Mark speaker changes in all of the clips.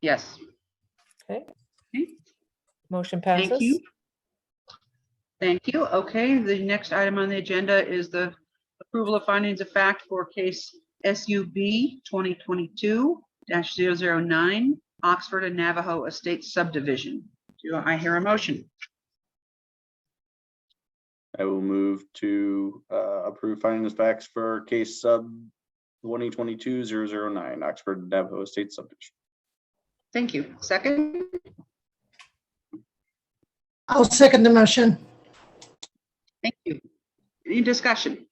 Speaker 1: Yes,
Speaker 2: Motion
Speaker 1: thank
Speaker 2: passes.
Speaker 1: you. Thank you. Okay, the next item on the agenda is the approval of findings of fact for case SUB 2022-009, Oxford and Navajo Estate Subdivision. Do I hear a motion?
Speaker 3: I will move to uh, approve findings of facts for case sub 2022-009 Oxford Navajo Estate Subdivision.
Speaker 1: Thank you. Second,
Speaker 4: I'll second the motion.
Speaker 1: thank you. Any discussion?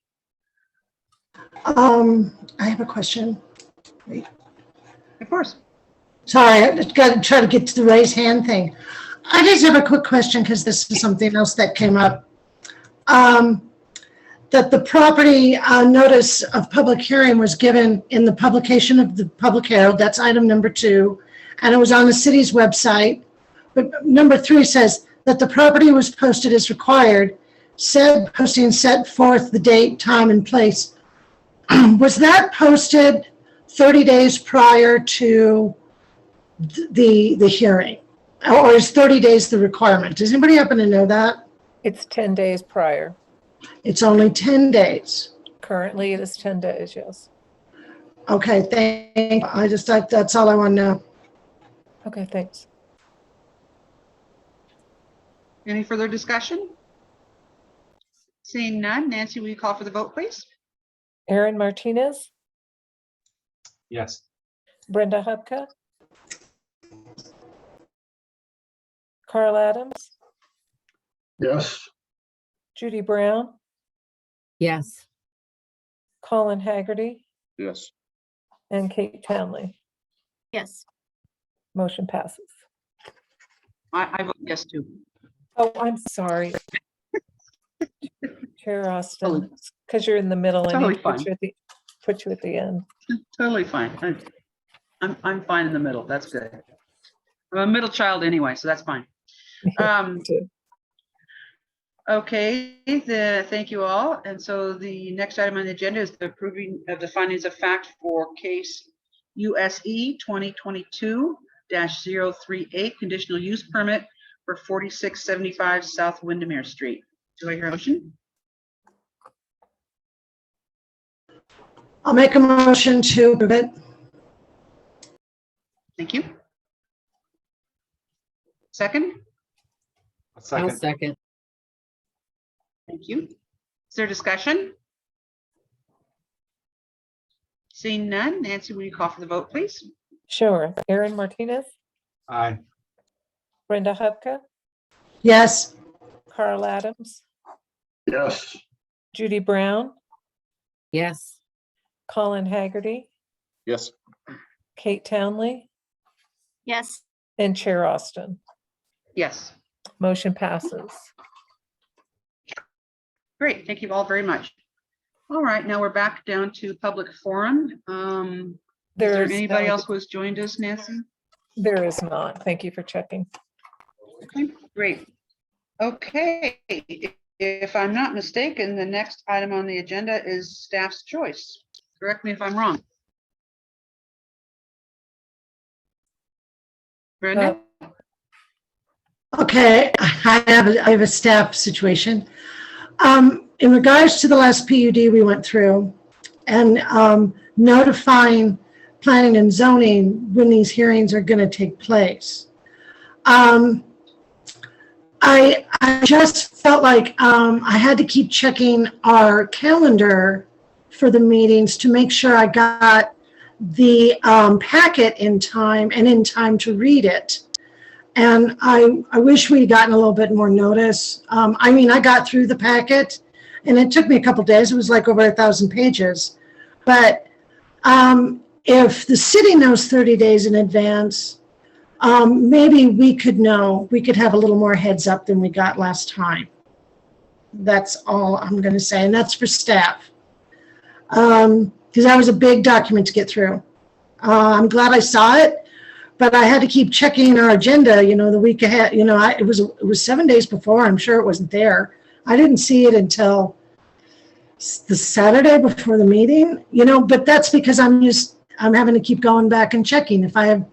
Speaker 4: Um, I have a question.
Speaker 1: Of course.
Speaker 4: Sorry, I just gotta try to get to the raise hand thing. I just have a quick question because this is something else that came up. Um, that the property uh, notice of public hearing was given in the publication of the Public Herald, that's item number two, and it was on the city's website. But number three says that the property was posted as required. Said posting set forth the date, time, and place. Was that posted 30 days prior to? the, the hearing? Or is 30 days the requirement? Does anybody happen to know that?
Speaker 2: It's 10 days prior.
Speaker 4: It's only 10 days.
Speaker 2: Currently, it is 10 days, yes.
Speaker 4: Okay, thank, I just, that- that's all I want to know.
Speaker 2: Okay, thanks.
Speaker 1: Any further discussion? Seeing none, Nancy, will you call for the vote, please?
Speaker 2: Aaron Martinez,
Speaker 5: Yes.
Speaker 2: Brenda Hubka, Carl Adams,
Speaker 6: Yes.
Speaker 2: Judy Brown,
Speaker 7: Yes,
Speaker 2: Colin Haggerty,
Speaker 3: Yes,
Speaker 2: and Kate Townley.
Speaker 8: Yes,
Speaker 2: Motion passes.
Speaker 1: I, I vote yes too.
Speaker 2: Oh, I'm sorry. Chair Austin,
Speaker 1: Totally.
Speaker 2: because you're in the middle. I
Speaker 1: Totally
Speaker 2: need to
Speaker 1: fine.
Speaker 2: put you at the- Put you at the end.
Speaker 1: Totally fine. I'm- I'm, I'm fine in the middle. That's good. I'm a middle child anyway, so that's fine. Um,
Speaker 2: too.
Speaker 1: Okay, the, thank you all. And so the next item on the agenda is the approving of the findings of fact for case E USE 2022-038, conditional use permit for 4675 South Windermere Street. Do I hear a motion?
Speaker 4: I'll make a motion to approve it.
Speaker 1: Thank you. Second?
Speaker 5: A
Speaker 7: I'll
Speaker 5: second.
Speaker 7: second.
Speaker 1: Thank you. Is there discussion? Seeing none, Nancy, will you call for the vote, please?
Speaker 2: Sure. Aaron Martinez,
Speaker 5: Aye.
Speaker 2: Brenda Hubka,
Speaker 4: Yes,
Speaker 2: Carl Adams,
Speaker 6: Yes.
Speaker 2: Judy Brown,
Speaker 7: Yes,
Speaker 2: Colin Haggerty,
Speaker 3: yes,
Speaker 2: Kate Townley,
Speaker 8: yes,
Speaker 2: and Chair Austin.
Speaker 1: Yes,
Speaker 2: Motion passes.
Speaker 1: great. Thank you all very much. All right, now we're back down to public forum. Um, Is there
Speaker 2: There's um,
Speaker 1: anybody
Speaker 2: no-
Speaker 1: else who has joined us, Nancy?
Speaker 2: There is not. Thank you for checking.
Speaker 1: Okay, Great. Okay, i- if I'm not mistaken, the next item on the agenda is staff's choice. Correct me if I'm wrong. Brenda?
Speaker 4: okay, I have, a- I have a staff situation. Um, in regards to the last PUD we went through and, um, notifying planning and zoning when these hearings are gonna take place. Um, I, I just felt like, um, I had to keep checking our calendar for the meetings to make sure I got the, um, packet in time and in time to read it. And I, I wish we'd gotten a little bit more notice. Um, I mean, I got through the packet and it took me a couple days. It was like over a thousand pages. But um, if the city knows 30 days in advance, um, maybe we could know, we could have a little more heads up than we got last time. That's all I'm going to say. And that's for staff. Um, because that was a big document to get through. Uh, I'm glad I saw it but I had to keep checking our agenda, you know, the week ahead, you know, I, it was, it was seven days before, I'm sure it wasn't there. I didn't see it until s- the Saturday before the meeting, you know, but that's because I'm just, I'm having to keep going back and checking. If I have